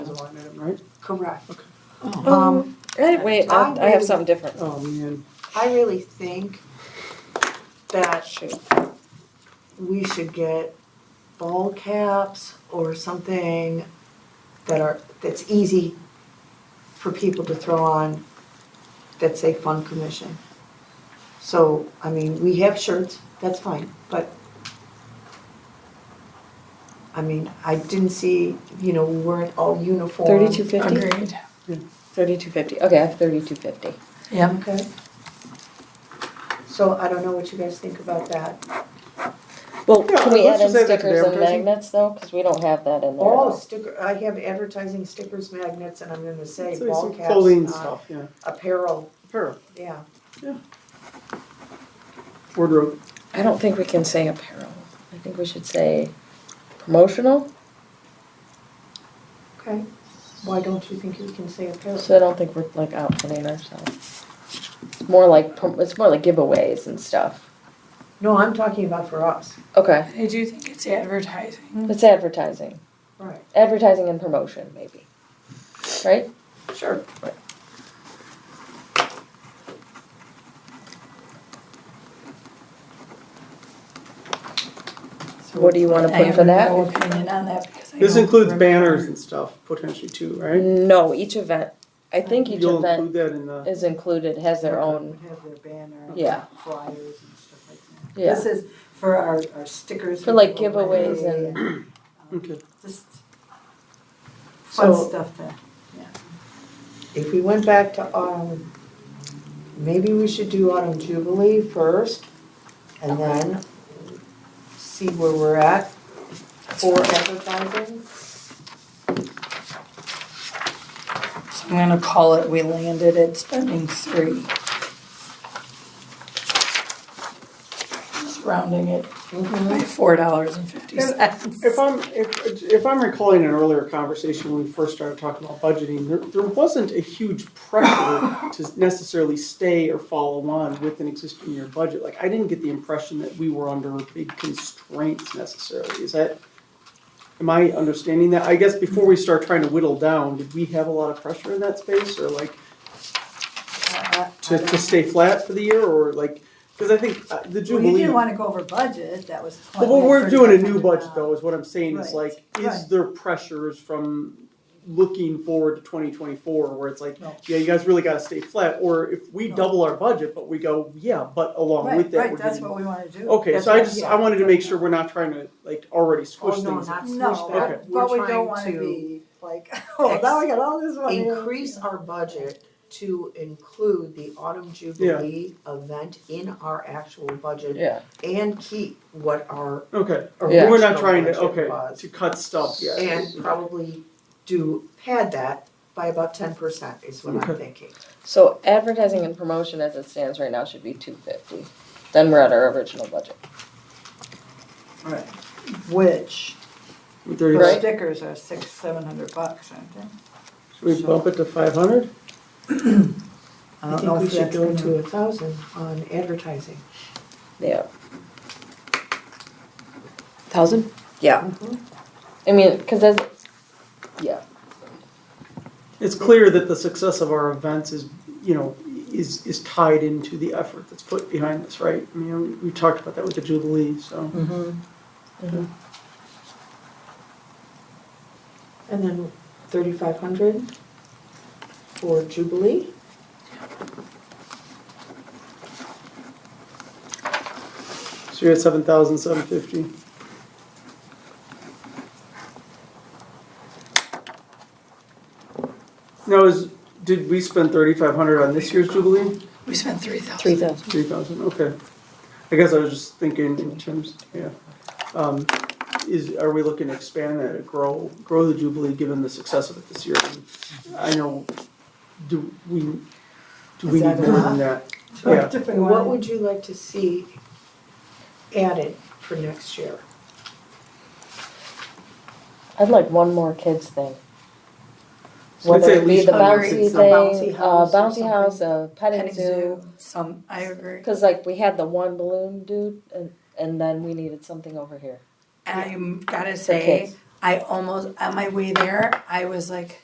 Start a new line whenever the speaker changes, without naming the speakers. right?
Correct.
Um, eh, wait, I I have something different.
Oh, man.
I really think that
Shoot.
we should get ball caps or something that are, that's easy for people to throw on that say fun commission. So, I mean, we have shirts, that's fine, but I mean, I didn't see, you know, we weren't all
Um,
uniform.
Thirty-two fifty?
Agreed.
Thirty-two fifty, okay, I have thirty-two fifty.
Yeah.
Okay. So I don't know what you guys think about that.
Well,
Yeah,
can we add
let's
in
just add that to the
stickers and
advertising.
magnets though, cause we don't have that in there.
Oh, sticker, I have advertising stickers, magnets, and I'm gonna say
So
ball
some
caps.
Clothing
uh,
stuff, yeah.
Apparel,
Apparel,
yeah.
wardrobe.
I don't think we can say apparel, I think we should say promotional,
Okay. Why don't you think you can say apparel?
so I don't think we're like outfitting ourselves. It's more like, prom- it's more like giveaways and stuff,
No, I'm talking about for us.
okay,
I do think it's
Mm-hmm.
advertising.
it's advertising,
Right.
advertising and promotion maybe, right?
Sure.
What do you wanna put for
I
that?
have no opinion on that because I
This
don't
includes banners
remember.
and stuff potentially too, right?
No, each event, I think each
You'll
event
include that in the,
is included, has their own,
Have their banner. and
Yeah.
Flyers and stuff like that.
yeah,
This is for our, our stickers.
For, like,
we give away
giveaways and-
um,
okay.
Just fun
So
stuff to,
if we went back to, um, maybe we should do autumn jubilee first and then see where we're at for advertising.
So I'm gonna call it, we landed at spending three. Just rounding it by
Mm-hmm.
four dollars and fifty cents.
If I'm, if, if I'm recalling an earlier conversation when we first started talking about budgeting, there, there wasn't a huge pressure to necessarily stay or follow on with an existing year budget. Like, I didn't get the impression that we were under big constraints necessarily. Is that, am I understanding that? I guess before we start trying to whittle down, did we have a lot of pressure in that space or like
Uh,
to, to stay flat for the year or like, because I think uh, the
well, you
Jubilee.
didn't wanna go over budget, that was. the
Well,
point.
when
We
we're
had
doing a new budget
$3,500.
though, is what I'm saying is
Right,
like, is
right.
there pressures from looking forward to twenty twenty-four where it's like,
No.
yeah, you guys really gotta stay flat, or if we
No.
double our budget, but we go, yeah, but along with that,
Right,
we're
right, that's
getting.
what we wanna do.
Okay,
That's
so I
what-
just,
yeah.
I wanted to make sure we're not trying to like already squish
Oh, no,
things.
not
No,
switch
Okay.
back.
but
We're
we don't
trying
wanna
to
be like, oh, now we got all this money.
increase our budget to include the autumn jubilee event in our actual budget
yeah.
and keep what our,
Okay,
Yeah.
we're not trying to,
Original
okay,
budget.
to cut stuff, yeah.
and probably do pad that by about ten percent is what I'm
Okay.
thinking.
So advertising and promotion as it stands right now should be two fifty, then we're at our original budget.
Right. Which,
Thirty-
those
Right.
stickers are six, seven hundred bucks, aren't they?
Should we bump it to five hundred?
I
I
don't
think
know
we
if
should
that's
go
gonna.
to a thousand on advertising.
Yeah.
Thousand?
Yeah.
Uh-huh.
I mean, cause as, yeah,
It's clear that the success of our events is, you know, is, is tied into the effort that's put behind this, right? I mean, we- we talked about that with the Jubilee, so.
And then thirty-five hundred for jubilee.
So you're at seven thousand seven fifty. Now, is, did we spend thirty-five hundred on this year's Jubilee?
We spent three thousand.
Three thousand.
Three thousand, okay. I guess I was just thinking in terms, yeah. Um, is, are we looking to expand that, grow, grow the Jubilee, given the success of it this year? And I know, do we, do we
Is
need
that
more than that? Yeah.
If we
What
wanted-
would you like to see added for next year?
I'd like one more kids thing.
So I'd
Whether
say at
it be
least
the
a
hundred
bouncy
kids.
a bouncy
thing, a
house or
bouncy
something.
house, a petting
Petting
zoo.
zoo, some, I agree.
Cause like we had the one balloon dude and, and then we needed something over here.
I'm gotta
for kids.
say, I almost, on my way there, I was like,